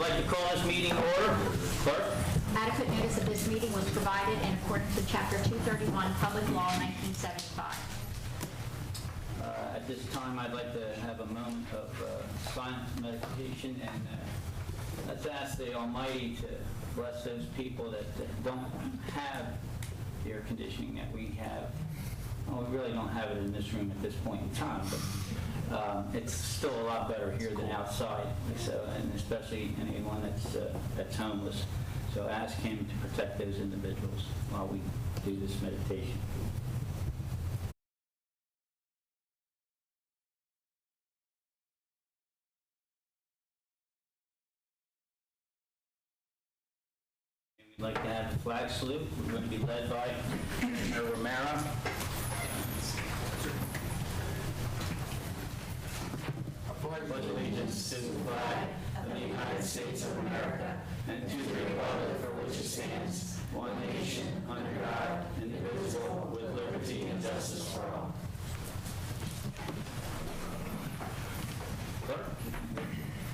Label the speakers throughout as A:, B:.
A: I'd like to call this meeting to order. Clerk?
B: Adequate notice of this meeting was provided in accordance with Chapter 231, Public Law 1975.
A: Uh, At this time, I'd like to have a moment of uh, silent meditation, and uh, let's ask the Almighty to bless those people that that don't have the air conditioning that we have. Well, we really don't have it in this room at this point in time, but um, it's still a lot better here than outside, so, and especially anyone that's, uh, that's homeless. So ask him to protect those individuals while we do this meditation. We'd like to have the flag salute. We're going to be led by Mayor Romero. Clerk?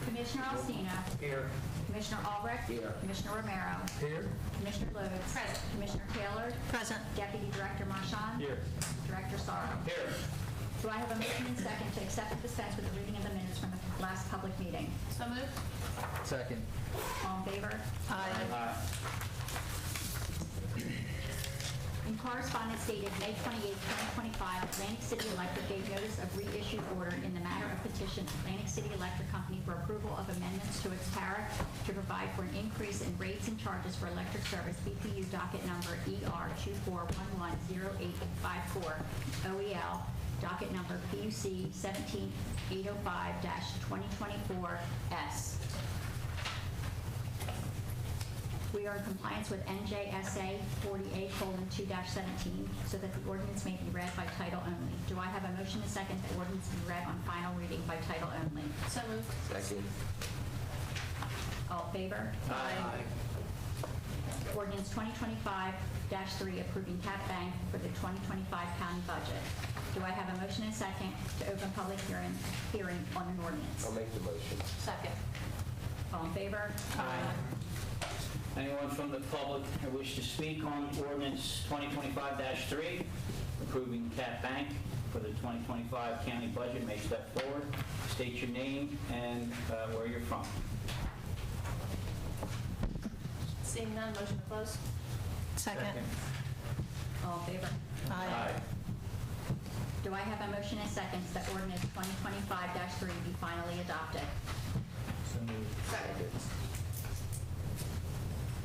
B: Commissioner Alstina.
A: Here.
B: Commissioner Albrecht.
A: Here.
B: Commissioner Romero.
A: Here.
B: Commissioner Lutz. Present. Commissioner Taylor.
C: Present.
B: Deputy Director Marchand.
A: Here.
B: Director Sorrow.
A: Here.
B: Do I have a motion and second to accept and dispense with the reading of the minutes from the last public meeting?
C: So moved.
D: Second.
B: All in favor?
C: Aye.
A: Aye.
B: In correspondence dated May 28, 2025, Atlantic City Electric gave notice of reissued order in the matter of petition Atlantic City Electric Company for approval of amendments to its tariff to provide for an increase in rates and charges for electric service BPU docket number ER 24110854 OEL, E docket number PUC 17805-2024S. We are in compliance with NJSA 48:2-17, so that the ordinance may be read by title only. Do I have a motion and second that ordinance be read on final reading by title only?
C: So moved.
D: Second.
B: All in favor?
C: Aye.
B: Ordinance 2025-3 approving cap bank for the 2025 county budget. Do I have a motion and second to open public hearing, hearing on an ordinance?
D: I'll make the motion.
C: Second.
B: All in favor?
A: Anyone from the public who wish to speak on ordinance 2025-3, approving Cat Bank for the 2025 county budget, may step forward, state your name and uh, where you're from.
C: Seeing none, motion to close? Second.
B: All in favor?
C: Aye.
B: Do I have a motion and second that ordinance 2025-3 be finally adopted?
D: Second.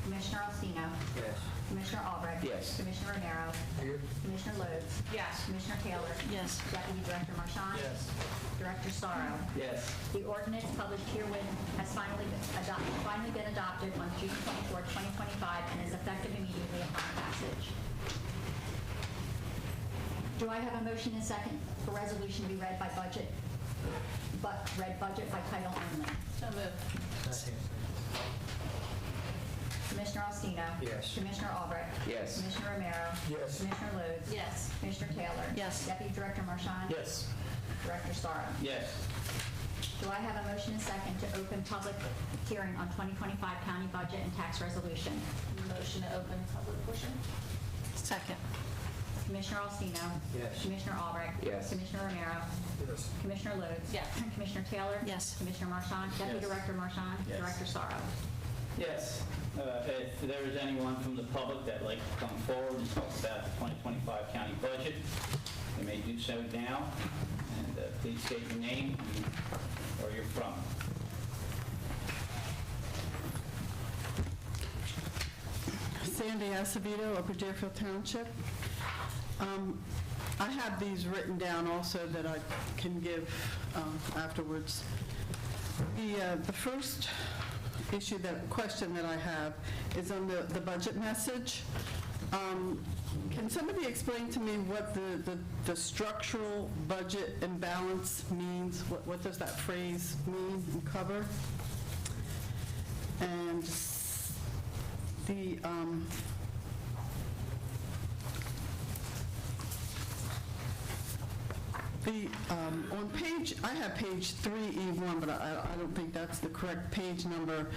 B: Commissioner Alstino.
D: Yes.
B: Commissioner Albrecht.
D: Yes.
B: Commissioner Romero.
D: Here?
B: Commissioner Lodes.
C: Yes.
B: Commissioner Taylor.
C: Yes.
B: Deputy Director Marchand. Director Sorrow.
A: Yes.
B: The ordinance published herein has finally been adopted, finally been adopted on June 24, 2025, and is effective immediately upon passage. Do I have a motion and second for resolution to be read by budget, but read budget by title only?
C: So moved.
B: Commissioner Alstino.
D: Yes.
B: Commissioner Albrecht.
D: Yes.
B: Commissioner Romero.
D: Yes.
B: Commissioner Lodes.
C: Yes.
B: Commissioner Taylor.
C: Yes.
B: Deputy Director Marchand.
D: Yes.
B: Director Sorrow.
A: Yes.
B: Do I have a motion and second to open public hearing on 2025 county budget and tax resolution?
C: Motion to open public portion? Second.
B: Commissioner Alstino.
D: Yes.
B: Commissioner Albrecht.
D: Yes.
B: Commissioner Romero.
D: Yes.
B: Commissioner Lodes.
C: Yes.
B: Commissioner Taylor.
C: Yes.
B: Commissioner Marchand. Deputy
A: Yes.
B: Director Marchand.
A: Yes.
B: Director Sorrow.
A: Yes. Uh, If there is anyone from the public that'd like to come forward and talk about the 2025 county budget, they may do so now, and uh, please state your name and where you're from.
E: Sandy Acevedo, Upper Deerfield Township. Um, I have these written down also that I can give um, afterwards. The, uh, the first issue that, question that I have is on the, the budget message. Um, Can somebody explain to me what the, the- the structural budget imbalance means? What, what does that phrase mean and cover? And s- the, um, The, um, E on page, I have page 3E1, but I I don't think that's the correct page number.